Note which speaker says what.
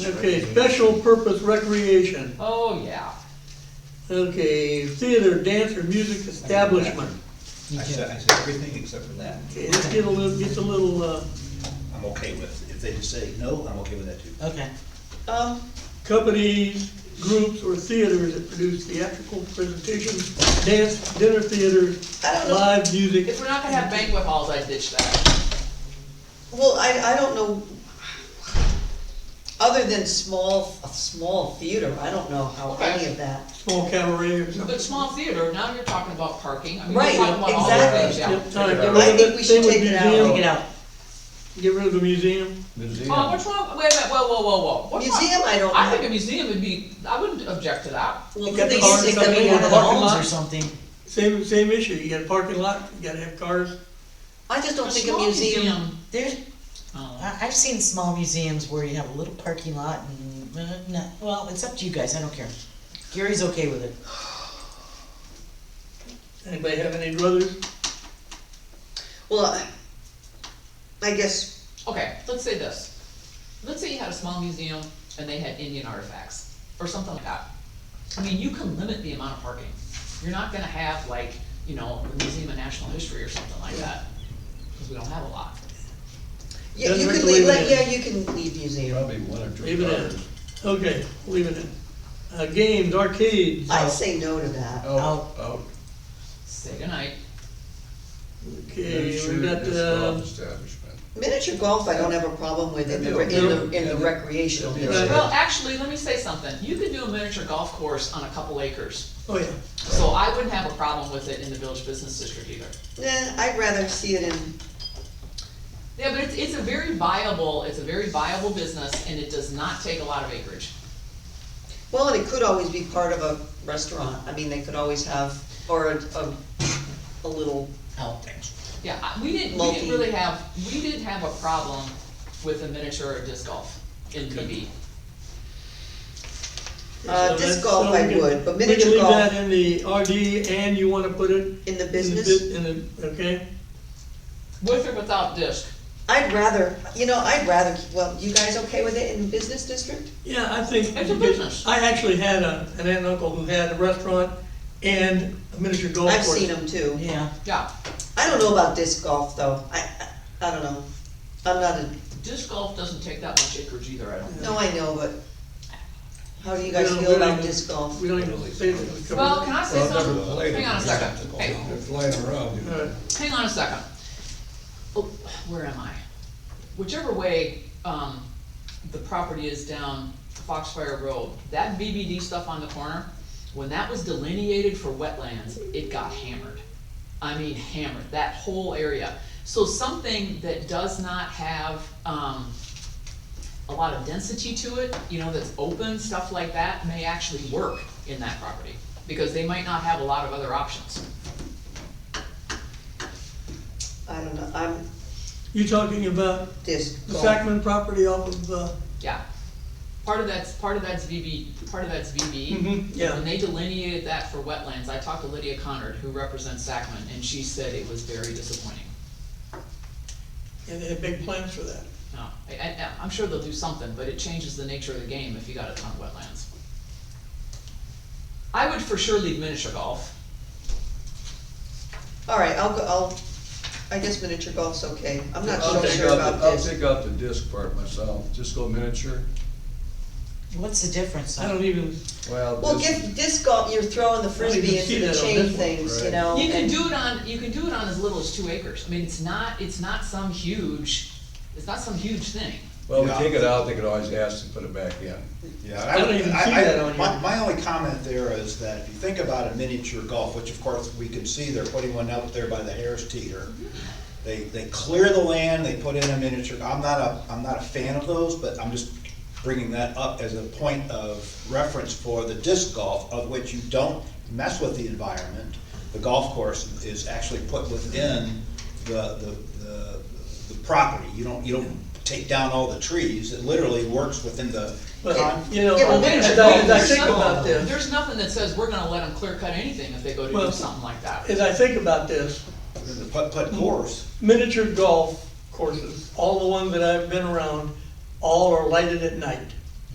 Speaker 1: Okay, special purpose recreation.
Speaker 2: Oh, yeah.
Speaker 1: Okay, theater, dance, or music establishment.
Speaker 3: I said, I said everything except for that.
Speaker 1: Okay, this get a little, gets a little, uh,
Speaker 3: I'm okay with, if they just say no, I'm okay with that too.
Speaker 4: Okay,
Speaker 5: Um,
Speaker 1: companies, groups, or theaters that produce theatrical presentations, dance, dinner theaters,
Speaker 5: I don't know.
Speaker 1: live music.
Speaker 2: If we're not gonna have banquet halls, I ditch that.
Speaker 5: well, I, I don't know, other than small, a small theater, I don't know how any of that.
Speaker 1: Small cabaret or something.
Speaker 2: But small theater, now you're talking about parking, I mean, we're
Speaker 5: Right,
Speaker 2: talking about all the
Speaker 5: exactly.
Speaker 2: things, yeah.
Speaker 1: Yep, sorry, get rid
Speaker 5: I
Speaker 1: of
Speaker 5: think
Speaker 1: it.
Speaker 5: we should
Speaker 1: Same with
Speaker 5: take it out.
Speaker 4: take
Speaker 1: museum.
Speaker 4: it out.
Speaker 1: Get rid of the museum.
Speaker 2: Oh, what's wrong, wait a minute, whoa, whoa, whoa, whoa. What's wrong-
Speaker 5: Museum, I don't
Speaker 2: I think
Speaker 5: know.
Speaker 2: a museum would be, I wouldn't object to that.
Speaker 5: Well,
Speaker 1: You
Speaker 5: could
Speaker 1: got
Speaker 5: they
Speaker 1: the cars
Speaker 5: just take them
Speaker 1: coming
Speaker 5: in
Speaker 1: in
Speaker 5: one
Speaker 1: the
Speaker 5: of the
Speaker 1: parking
Speaker 5: homes
Speaker 1: lot?
Speaker 5: or
Speaker 4: or
Speaker 5: something?
Speaker 4: something.
Speaker 1: Same, same issue. You got a parking lot, you gotta have cars.
Speaker 5: I just don't think a
Speaker 2: small
Speaker 5: museum,
Speaker 4: There's,
Speaker 2: Oh.
Speaker 4: I, I've seen small museums where you have a little parking lot and, uh, no, well, it's up to you guys, I don't care. Gary's okay with it.
Speaker 1: Anybody have any brothers?
Speaker 5: well, I- I guess,
Speaker 2: Okay, let's say this. Let's say you had a small museum and they had Indian artifacts, or something like that. I mean, you can limit the amount of parking. You're not gonna have like, you know, the Museum of National History or something like that, because we don't have a lot.
Speaker 5: yeah,
Speaker 1: Doesn't
Speaker 5: you
Speaker 1: have
Speaker 5: could
Speaker 1: to leave
Speaker 5: leave,
Speaker 1: it
Speaker 5: like,
Speaker 1: in.
Speaker 5: yeah, you can leave
Speaker 6: Oh.
Speaker 5: museum.
Speaker 3: Probably one or two.
Speaker 1: Leave it in. Okay, leave it in. Uh, games, arcades.
Speaker 5: I'd say no to that.
Speaker 6: Oh.
Speaker 5: Oh.
Speaker 4: Out.
Speaker 6: out,
Speaker 2: Say goodnight.
Speaker 1: Okay, we
Speaker 6: miniature
Speaker 1: got,
Speaker 6: disc
Speaker 1: uh,
Speaker 6: golf establishment.
Speaker 5: Miniature golf, I don't have a problem with in the,
Speaker 6: Yeah.
Speaker 5: in the, in the
Speaker 6: Yeah.
Speaker 5: recreational.
Speaker 6: Yeah.
Speaker 5: miniature.
Speaker 2: Well, actually, let me say something. You could do a miniature golf course on a couple acres.
Speaker 1: oh yeah.
Speaker 2: So I wouldn't have a problem with it in the village business district either.
Speaker 5: Nah, I'd rather see it in,
Speaker 2: Yeah, but it's, it's a very viable, it's a very viable business and it does not take a lot of acreage.
Speaker 5: well, and it could always be part of a restaurant, I mean, they could always have, or a, a, a little
Speaker 3: Oh,
Speaker 4: Out.
Speaker 2: Yeah, I- we didn't, we didn't
Speaker 5: Multi.
Speaker 2: really have, we didn't have a problem with a miniature or disc golf in PB.
Speaker 5: Uh,
Speaker 1: So uh, that's-
Speaker 5: disc golf
Speaker 1: so
Speaker 5: I
Speaker 1: we can-
Speaker 5: would, but
Speaker 1: We can
Speaker 5: miniature
Speaker 1: leave that
Speaker 5: golf
Speaker 1: in the RD and you wanna put it?
Speaker 5: in the
Speaker 1: in the
Speaker 5: business,
Speaker 1: bit- In the, okay,
Speaker 2: With or without disc?
Speaker 5: I'd rather, you know, I'd rather, well, you guys okay with it in business district?
Speaker 1: yeah, I think.
Speaker 2: It's a business.
Speaker 1: I actually had a, an aunt and uncle who had a restaurant and a miniature golf
Speaker 5: I've
Speaker 1: Oh, course.
Speaker 5: seen them too.
Speaker 4: Yeah,
Speaker 2: Yeah,
Speaker 5: I don't know about disc golf though, I, I, I don't know, I'm not a,
Speaker 2: disc golf doesn't take that much acreage either, I don't think.
Speaker 5: no, I know, but how do you guys
Speaker 1: We don't- we
Speaker 5: feel
Speaker 1: don't
Speaker 5: about
Speaker 1: even-
Speaker 5: disc golf?
Speaker 1: We don't even say that we covered.
Speaker 2: Well,
Speaker 1: it.
Speaker 2: can I say
Speaker 6: Well, I've never
Speaker 2: something?
Speaker 6: played
Speaker 2: Hang
Speaker 6: it.
Speaker 2: on a second. Hey,
Speaker 6: They're flying around. you know.
Speaker 1: All right.
Speaker 2: hang on a second. Oh, where am I? Whichever way, um, the property is down Foxfire Road, that BBD stuff on the corner, when that was delineated for wetlands, it got hammered. I mean hammered, that whole area. So something that does not have, um, a lot of density to it, you know, that's open, stuff like that, may actually work in that property, because they might not have a lot of other options.
Speaker 5: I don't know, I'm
Speaker 1: You talking about
Speaker 5: disc
Speaker 1: the
Speaker 5: golf,
Speaker 1: Sacman property off of, uh,
Speaker 2: Yeah. Part of that's, part of that's VB, part of that's VB.
Speaker 1: Mhm, yeah.
Speaker 2: When they delineated that for wetlands, I talked to Lydia Connard, who represents Sacman, and she said it was very disappointing.
Speaker 1: and they had big plans for that.
Speaker 2: No, I, I, I'm sure they'll do something, but it changes the nature of the game if you got a ton of wetlands. I would for sure leave miniature golf.
Speaker 5: alright, I'll go, I'll, I guess miniature golf's okay, I'm not
Speaker 6: I'll
Speaker 5: so
Speaker 6: take
Speaker 5: sure
Speaker 6: out
Speaker 5: about
Speaker 6: the- I'll
Speaker 5: disc.
Speaker 6: take out the disc part myself, just go miniature,
Speaker 4: what's the difference?
Speaker 1: I don't even,
Speaker 6: well.
Speaker 5: Well,
Speaker 6: disc-
Speaker 5: give disc golf, you're throwing the frisbee
Speaker 1: see
Speaker 5: into the
Speaker 1: that on
Speaker 5: chain
Speaker 1: this one,
Speaker 5: things, you
Speaker 6: right.
Speaker 5: know?
Speaker 2: You can
Speaker 5: and-
Speaker 2: do it on, you can do it on as little as two acres. I mean, it's not, it's not some huge, it's not some huge thing.
Speaker 6: Well, we
Speaker 3: Yeah.
Speaker 6: take it out, they could always ask to put it back in.
Speaker 3: Yeah,
Speaker 1: I
Speaker 3: I
Speaker 1: don't
Speaker 3: would,
Speaker 1: even
Speaker 3: I,
Speaker 1: see that on
Speaker 3: I, my,
Speaker 1: here.
Speaker 3: my only comment there is that if you think about a miniature golf, which of course we can see, they're putting one out there by the Harris Teeter. They, they clear the land, they put in a miniature, I'm not a, I'm not a fan of those, but I'm just bringing that up as a point of reference for the disc golf, of which you don't mess with the environment. The golf course is actually put within the, the, the, the property, you don't, you don't take down all the trees, it literally works within the con-
Speaker 1: but, you know,
Speaker 5: Yeah,
Speaker 1: as
Speaker 5: but miniature
Speaker 1: I,
Speaker 5: golf
Speaker 1: as I
Speaker 5: is
Speaker 1: think
Speaker 5: small.
Speaker 1: about this.
Speaker 2: There's nothing that says we're gonna let them clear cut anything if they go to do
Speaker 1: Well,
Speaker 2: something like that.
Speaker 1: As I think about this,
Speaker 3: the putt putt course.
Speaker 1: miniature golf courses, all the ones that I've been around, all are lighted at night.